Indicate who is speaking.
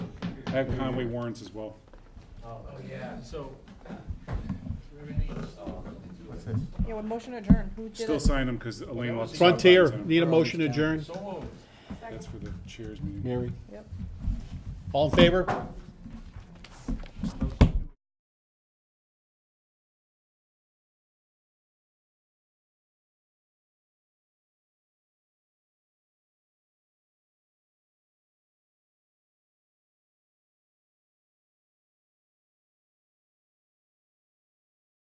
Speaker 1: I have Conway warrants as well.
Speaker 2: Oh, yeah, so.
Speaker 3: What's this?
Speaker 4: Yeah, well, motion adjourn. Who did it?
Speaker 1: Still sign them because Elaine lost.
Speaker 5: Frontier,
Speaker 1: sidelines on 'em.
Speaker 5: need a motion to adjourn?
Speaker 2: So moved.
Speaker 1: That's for the chairs meeting.
Speaker 5: Mary,
Speaker 4: Yep.
Speaker 5: all in favor?